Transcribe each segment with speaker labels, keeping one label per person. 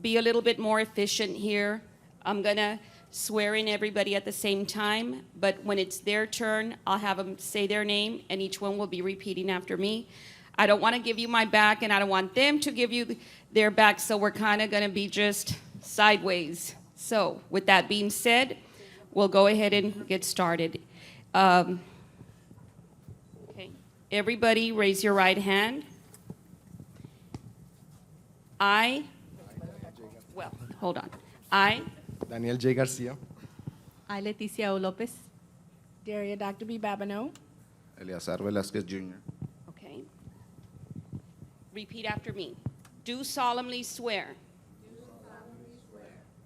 Speaker 1: be a little bit more efficient here. I'm gonna swear in everybody at the same time, but when it's their turn, I'll have them say their name, and each one will be repeating after me. I don't want to give you my back, and I don't want them to give you their back, so we're kind of gonna be just sideways. So, with that being said, we'll go ahead and get started. Um, okay. Everybody, raise your right hand. I, well, hold on. I
Speaker 2: Daniel J. García,
Speaker 3: I, Leticia O. Lopez,
Speaker 4: Daria Dr. B. Babineau.
Speaker 5: Eleazar Velázquez Jr.
Speaker 1: Okay. Repeat after me. Do solemnly swear.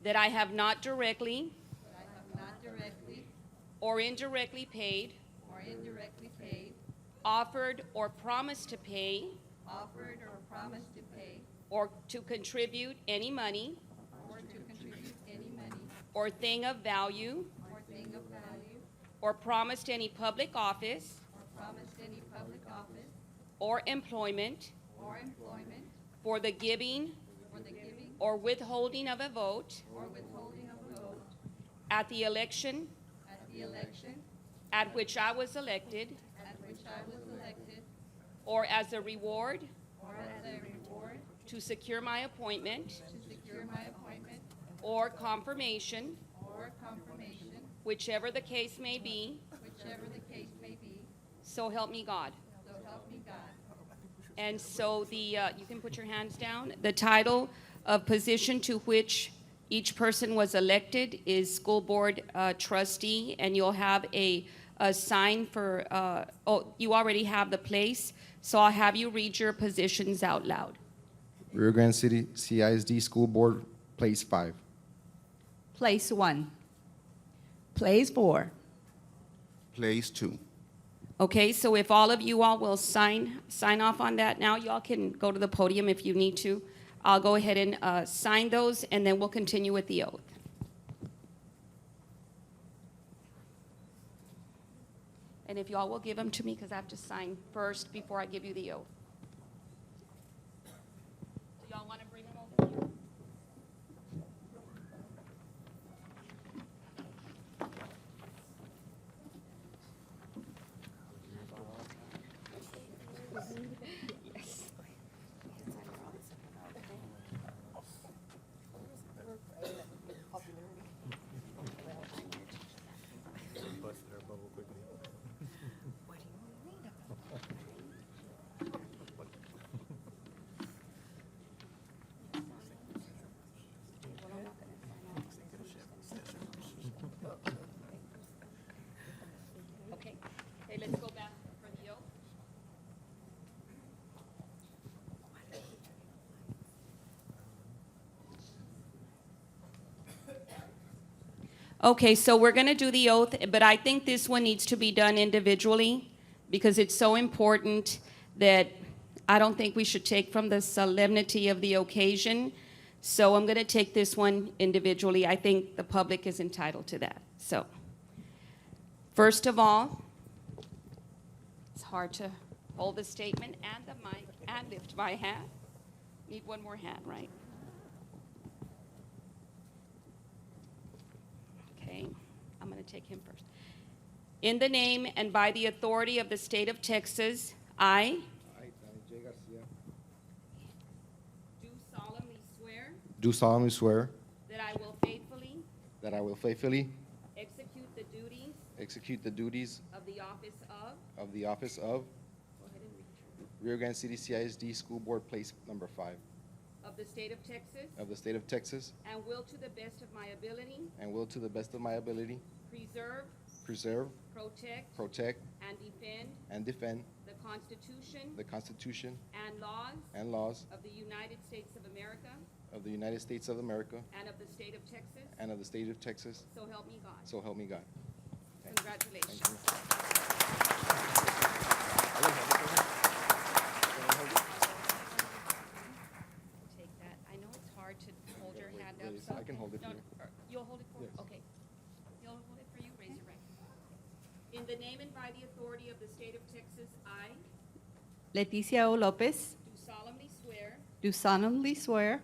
Speaker 1: That I have not directly. Or indirectly paid. Offered or promised to pay. Or to contribute any money. Or thing of value. Or promised any public office. Or employment. For the giving. Or withholding of a vote. At the election. At which I was elected. Or as a reward. To secure my appointment. Or confirmation. Whichever the case may be. So help me God. And so the, uh, you can put your hands down. The title of position to which each person was elected is School Board uh, Trustee, and you'll have a, a sign for, uh, oh, you already have the place, so I'll have you read your positions out loud.
Speaker 2: Rio Grande City CISD School Board, Place 5.
Speaker 3: Place 1.
Speaker 4: Plays for
Speaker 5: Place two.
Speaker 1: Okay, so if all of you all will sign, sign off on that now, y'all can go to the podium if you need to. I'll go ahead and uh, sign those, and then we'll continue with the oath. And if y'all will give them to me, because I have to sign first before I give you the oath. Do y'all want to bring them over here? Okay, okay, let's go back for the oath. Okay, so we're going to do the oath, but I think this one needs to be done individually because it's so important that I don't think we should take from the solemnity of the occasion. So I'm going to take this one individually. I think the public is entitled to that. So, first of all, it's hard to hold the statement and the mic and lift my hand. Need one more hand, right? Okay, I'm going to take him first. In the name and by the authority of the state of Texas, I
Speaker 2: I, Daniel J. García.
Speaker 1: do solemnly swear
Speaker 2: Do solemnly swear
Speaker 1: that I will faithfully
Speaker 2: that I will faithfully
Speaker 1: execute the duties
Speaker 2: execute the duties
Speaker 1: of the office of,
Speaker 2: of the office of Rio Grande City CISD School Board, Place Number 5
Speaker 1: of the state of Texas,
Speaker 2: of the state of Texas,
Speaker 1: and will to the best of my ability
Speaker 2: and will to the best of my ability
Speaker 1: preserve,
Speaker 2: preserve,
Speaker 1: protect,
Speaker 2: protect,
Speaker 1: and defend
Speaker 2: and defend
Speaker 1: the Constitution
Speaker 2: the Constitution
Speaker 1: and laws
Speaker 2: and laws
Speaker 1: of the United States of America
Speaker 2: of the United States of America
Speaker 1: and of the state of Texas,
Speaker 2: and of the state of Texas,
Speaker 1: so help me God.
Speaker 2: so help me God.
Speaker 1: Congratulations. Take that. I know it's hard to hold your hand up.
Speaker 2: Please,
Speaker 1: so-
Speaker 2: I can hold it for
Speaker 1: No,
Speaker 2: you.
Speaker 1: or- You'll hold it for me?
Speaker 2: Yes.
Speaker 1: Okay. You'll hold it for you? Raise your right hand. In the name and by the authority of the state of Texas, I
Speaker 3: Leticia O. Lopez,
Speaker 1: do solemnly swear
Speaker 3: do solemnly swear